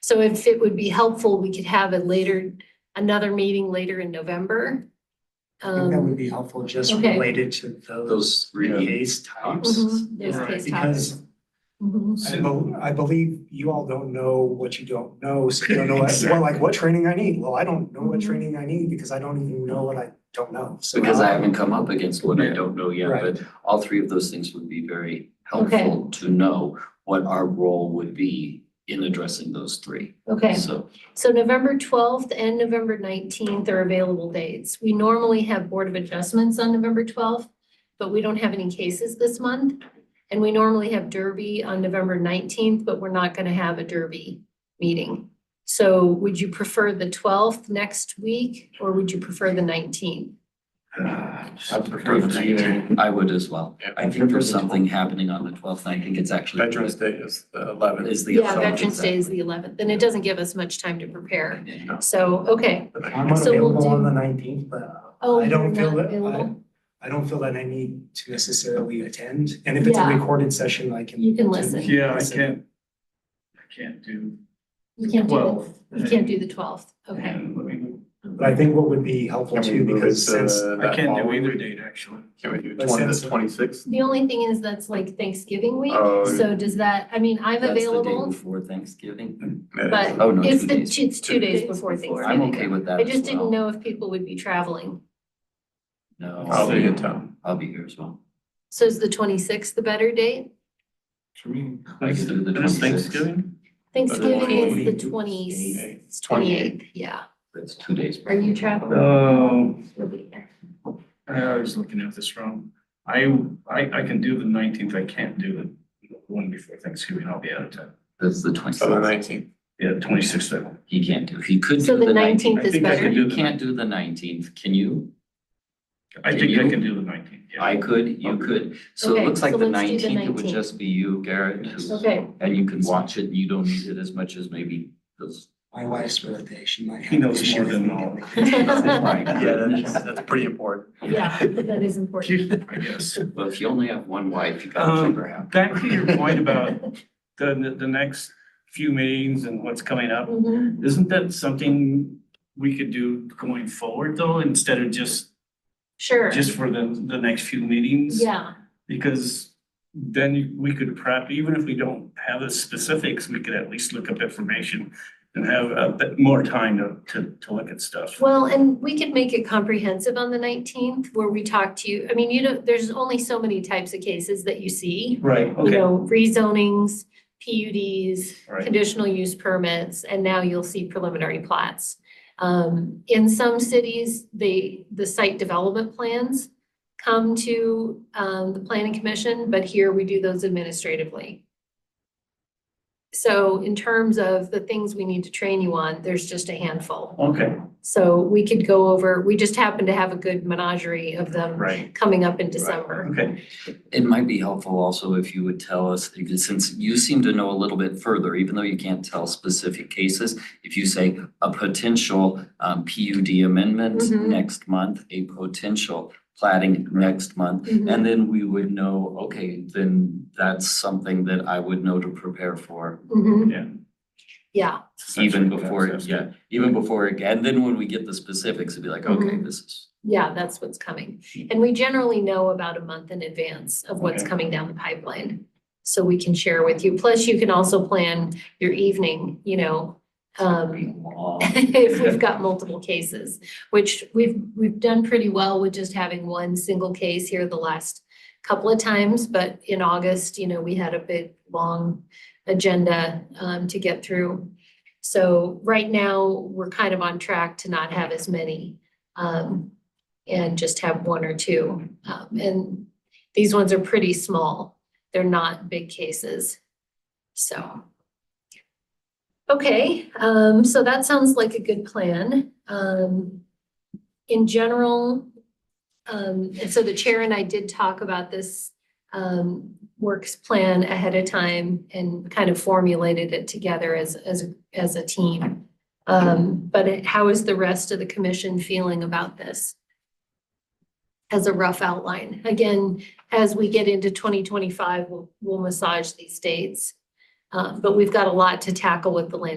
So if it would be helpful, we could have it later, another meeting later in November. I think that would Um, be helpful, just okay. related to those Those three. case types. mhm, those Right, case topics. Because Mhm. I bel- I believe you all don't know what you don't know, so you don't know, what- well, like, what training I need? Well, I don't know what Mhm. training I need because I don't even know what I don't know, so. Because I haven't come up against what I Yeah. don't know yet, Right. but all three of those things would be very Okay. helpful to know what our role would be in addressing those three. Okay, So, so November twelfth and November nineteenth are available dates. We normally have Board of Adjustments on November twelfth, but we don't have any cases this month. And we normally have Derby on November nineteenth, but we're not gonna have a Derby meeting. So would you prefer the twelfth next week, or would you prefer the nineteenth? I prefer Perfect. the either. I would as well. Yeah. I think there's something happening on the twelfth, I think it's actually. Veterans Day is the eleventh. Is the. Yeah, eleventh, Veterans Day is the eleventh, and it doesn't give us much time to prepare. So, okay. I'm So we'll unavailable on do- the nineteenth, but Oh, I don't you're feel not that, I, available? I don't feel that I need to necessarily attend. And if it's a Yeah. recorded session, I can. You can listen. Yeah, I can't, I can't do You can't do twelve. the, you can't do the twelfth, okay. But I think what would be helpful Can we too, move it because to since that I can't do following either week? date, actually. Can we do But twenty, since- the twenty-sixth? The only thing is that's like Thanksgiving week, Oh, yeah. so does that, I mean, I'm That's the day available, before Thanksgiving. but Oh, no, it's two the, days. it's two days before I'm Thanksgiving. okay with that I as just didn't well. know if people would be traveling. I'll be No, in town. I'll be here as well. So is the twenty-sixth the better date? For me. I can do the It is 26th. Thanksgiving? Thanksgiving is the 28th. twenty, twenty-eighth, 28th. yeah. That's two days. Are you traveling? Oh, You'll be here. I was looking at this wrong. I, I, I can do the nineteenth, I can't do the one before Thanksgiving, I'll be out of town. That's the twenty-sixth. Oh, nineteenth. Yeah, twenty-sixth, I will. He can't do, he could So do the the nineteenth. 19th I is think I better. can do You the, can't do the nineteenth, can you? I think I can do the nineteenth, yeah. I could, you could. So it Okay, looks like so the let's do the nineteenth, it would 19th. just be you, Garrett, who- Okay, and you can watch it, you don't need it as much as maybe those. my wife's birthday, she might. He have knows issues more with than me all. getting it. My goodness. that's pretty important. yeah, that is important. I guess. Well, if you only have one wife, you gotta Um, figure out. Back to your point about the, the, the next few meetings and what's coming up. Mhm. Isn't that something we could do going forward though, instead of just, Sure, just for the, the next few meetings? yeah, Because then we could prep, even if we don't have the specifics, we could at least look up information and have a bit more time to, to, to look at stuff. well, and we could make it comprehensive on the nineteenth where we talk to you, I mean, you know, there's only so many types of cases that you see. Right, You okay, all know, rezonings, PUDs, right. conditional use permits, and now you'll see preliminary plats. Um, in some cities, they, the site development plans come to, um, the planning commission, but here we do those administratively. So in terms of the things we need to train you on, there's just a handful. Okay, So we could go over, we just happen to have a good menagerie of them right, coming up in December. okay, It might be helpful also if you would tell us, because since you seem to know a little bit further, even though you can't tell specific cases, if you say a potential um PUD amendment Mhm. next month, a potential plating next month, Mhm. and then we would know, okay, then that's something that I would know to prepare for Mhm. yeah. Yeah, even Essentially, that's- before, that's- yeah, even before, it- and then when we get the specifics, it'd be like, okay, Mhm. this is, yeah, that's what's coming. And we generally know about a month in advance of what's Okay. coming down the pipeline. So we can share with you. Plus, you can also plan your evening, you know, um, long. if we've got multiple cases, which we've, we've done pretty well with just having one single case here the last couple of times, but in August, you know, we had a big, long agenda um, to get through. So right now, we're kind of on track to not have as many um, and just have one or two. Um, And these ones are pretty small. They're not big cases. So. Okay, um, so that sounds like a good plan. Um, in general, um, and so the chair and I did talk about this, um, works plan ahead of time and kind of formulated it together as, as, as a team. Um, but it- how is the rest of the commission feeling about this? As a rough outline. Again, as we get into twenty Um, twenty-five, we'll, we'll massage these dates. Uh, but we've got a lot to tackle with the land